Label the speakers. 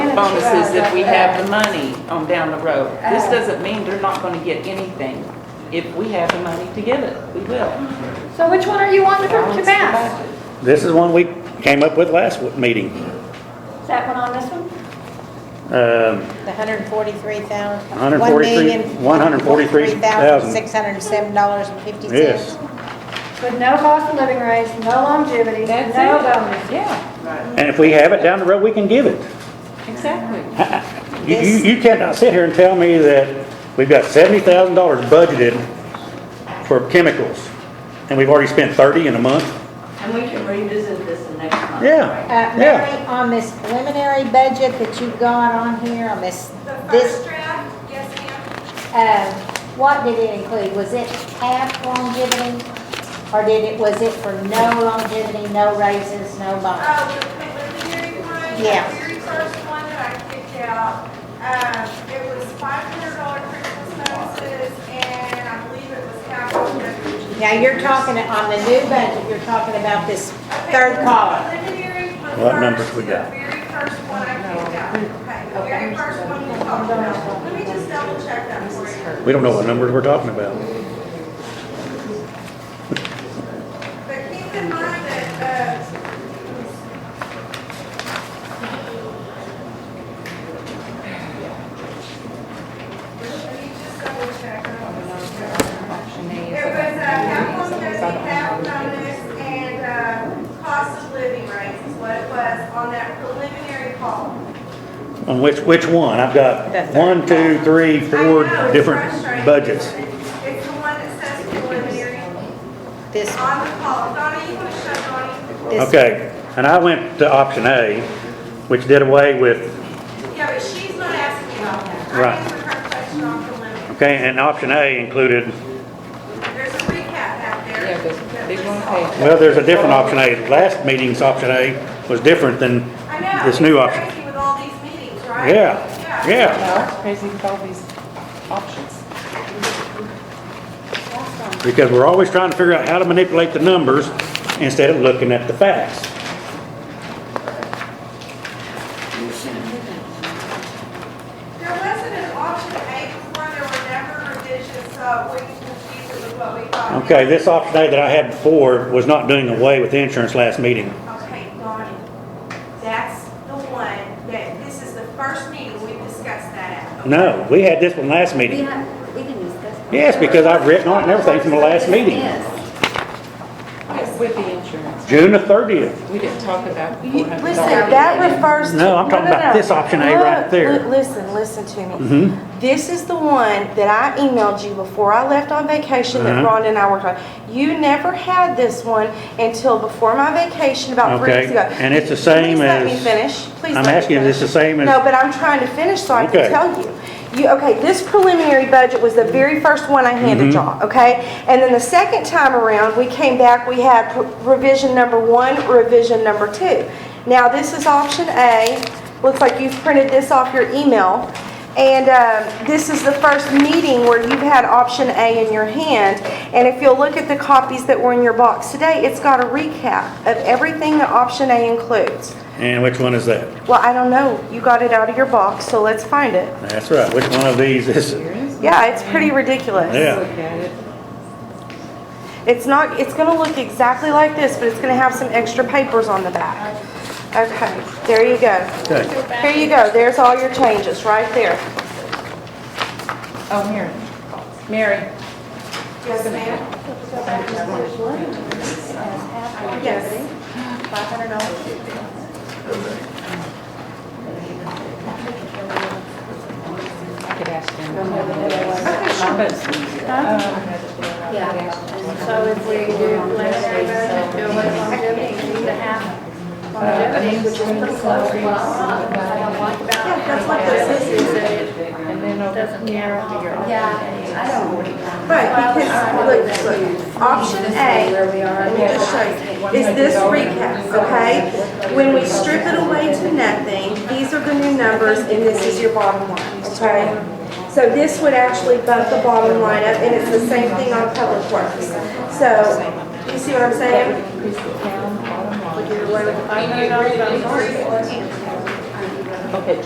Speaker 1: bonuses if we have the money on down the road. This doesn't mean they're not gonna get anything. If we have the money to give it, we will.
Speaker 2: So which one are you wanting to to pass?
Speaker 3: This is one we came up with last w- meeting.
Speaker 2: Is that one on this one?
Speaker 3: Um,
Speaker 4: The hundred and forty-three thousand.
Speaker 3: 143 143,000.
Speaker 4: Six hundred and seven dollars and fifty
Speaker 3: Yes.
Speaker 4: cents. Uh,
Speaker 2: With no cost of living raise, no longevity,
Speaker 1: That's
Speaker 2: no
Speaker 1: it.
Speaker 2: bonus.
Speaker 1: Yeah,
Speaker 3: And if we have it down the road, we can give it.
Speaker 1: exactly.
Speaker 3: You- You, you cannot sit here and tell me that we've got seventy thousand dollars budgeted for chemicals, and we've already spent thirty in a month?
Speaker 5: And we can revisit this the next month.
Speaker 4: Uh,
Speaker 3: Yeah,
Speaker 4: Mary, on this preliminary budget that you've got on here, on this,
Speaker 6: The first
Speaker 4: this,
Speaker 6: draft, yes ma'am,
Speaker 4: uh, what did it include? Was it half longevity? Or did it, was it for no longevity, no raises, no bonus?
Speaker 6: uh, the preliminary one, the
Speaker 4: Yeah.
Speaker 6: very first one that I picked out, um, it was five hundred dollar Christmas bonuses, and I believe it was half of the.
Speaker 4: Now, you're talking on the new budget, you're talking about this
Speaker 6: Okay,
Speaker 4: third
Speaker 6: the
Speaker 4: column.
Speaker 6: Preliminary was
Speaker 3: What numbers
Speaker 6: first,
Speaker 3: we got?
Speaker 6: The very first one I picked out, okay, the very first one we talked about, let me just double check that for you.
Speaker 3: We don't know what numbers we're talking about.
Speaker 6: But keep in mind that, uh, let me just double check. I don't know. It was a half on fifty, half bonus, and, uh, cost of living rates is what it was on that preliminary call.
Speaker 3: On which, which one? I've got one, two, three, four different budgets.
Speaker 6: It's the one that says preliminary on
Speaker 4: This,
Speaker 6: the call. Donna, you wanna show Donnie?
Speaker 4: this,
Speaker 3: Okay, and I went to option A, which did away with
Speaker 6: Yeah, but she's not asking about that.
Speaker 3: Right.
Speaker 6: I answered her question on preliminary.
Speaker 3: Okay, and option A included,
Speaker 6: There's a recap back there.
Speaker 1: Yeah, there's a big one page.
Speaker 3: well, there's a different option A. Last meeting's option A was different than
Speaker 6: I know.
Speaker 3: this new
Speaker 6: it's
Speaker 3: option.
Speaker 6: crazy with all these meetings, right?
Speaker 3: Yeah, yeah.
Speaker 1: No, it's crazy with all these options.
Speaker 3: Because we're always trying to figure out how to manipulate the numbers instead of looking at the facts.
Speaker 6: There wasn't an option A before, there were never revisions, so we can confuse it with what we thought.
Speaker 3: Okay, this option A that I had before was not doing away with insurance last meeting.
Speaker 6: Okay, Donnie, that's the one that, this is the first meeting we discussed that at. okay?
Speaker 3: No, we had this one last meeting.
Speaker 7: have, we can discuss.
Speaker 3: Yes, because I've written on it and everything from the last meeting,
Speaker 7: Yes.
Speaker 1: With the insurance,
Speaker 3: June the 30th.
Speaker 1: we didn't talk about the
Speaker 7: You-
Speaker 1: four hundred
Speaker 7: listen,
Speaker 1: dollars.
Speaker 8: That refers to.
Speaker 3: No, I'm talking
Speaker 8: no, no,
Speaker 3: about
Speaker 8: no.
Speaker 3: this option A right
Speaker 8: Look,
Speaker 3: there. Mm-hmm.
Speaker 8: li- Listen, listen to me. This is the one that I emailed you before I left on vacation that
Speaker 3: Uh-huh.
Speaker 8: Rhonda and I worked on. You never had this one until before my vacation, about three
Speaker 3: Okay,
Speaker 8: weeks ago.
Speaker 3: and it's the same as-
Speaker 8: Please let me finish. Please
Speaker 3: I'm
Speaker 8: let me
Speaker 3: asking if
Speaker 8: finish.
Speaker 3: it's the same as-
Speaker 8: No, but I'm trying to finish so I
Speaker 3: Okay.
Speaker 8: can tell you. You, okay, this preliminary budget was the very first one I handed y'all, okay? And then the second time around, we came back, we had pr- revision number one, revision number two. Now, this is option A. Looks like you've printed this off your email. And um, this is the first meeting where you've had option A in your hand. And if you'll look at the copies that were in your box today, it's got a recap of everything that option A includes.
Speaker 3: And which one is that?
Speaker 8: Well, I don't know. You got it out of your box, so let's find it.
Speaker 3: That's right, which one of these is it?
Speaker 8: Yeah, it's pretty ridiculous.
Speaker 3: Yeah.
Speaker 1: Look at it.
Speaker 8: It's not, it's gonna look exactly like this, but it's gonna have some extra papers on the back. Okay, there you go.
Speaker 3: Okay,
Speaker 8: Here you go. There's all your changes, right there.
Speaker 1: Oh, Mary. Mary,
Speaker 6: Yes, ma'am?
Speaker 8: Yes.
Speaker 1: I could ask them. But
Speaker 2: So if we do preliminary budget, do it longevity, do the half longevity, which is pretty close.
Speaker 7: Yeah,
Speaker 2: That's what this is, is that it doesn't narrow to your.
Speaker 7: Yeah, I don't.
Speaker 8: Right, because, look, look, option A,
Speaker 7: Where we are.
Speaker 8: Let me just show you. Is this recap, okay? When we strip it away to nothing, these are the new numbers and this is your bottom line, okay? So this would actually bump the bottom line up and it's the same thing on public works. So, you see what I'm saying?
Speaker 1: Okay,